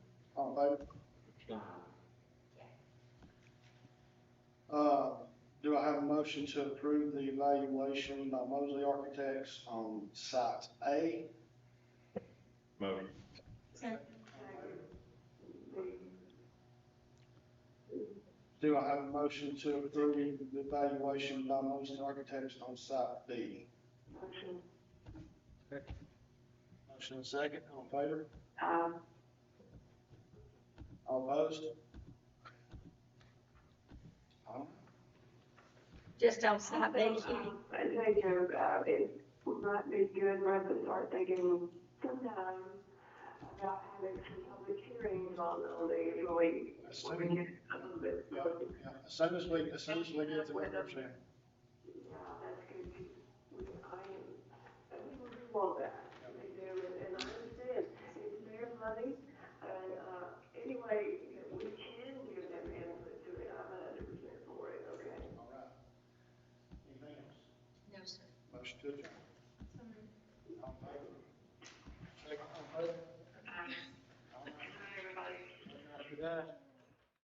Doug? Uh, do I have a motion to approve the evaluation by Mosley Architects on site A? Motion. Do I have a motion to approve the evaluation by Mosley Architects on site B? Motion and second, all in favor? Um, All opposed? Um, Just on site B, I think, uh, uh, it would not be good rather than start thinking sometime about having some public hearings on, on the, when we, As when we soon get a little bit. yeah, yeah, as soon as we, as soon as we get to the numbers in. Yeah, that's good. We- I am, I think we want that. They do, and, and I understand, it's their money, and, uh, anyway, we can give them input to it, I'm a hundred percent for it, okay? All right. Anything else? no, sir. Motion to adjourn. All in favor? Second, all in favor? Hi, everybody. Motion carries. Good night.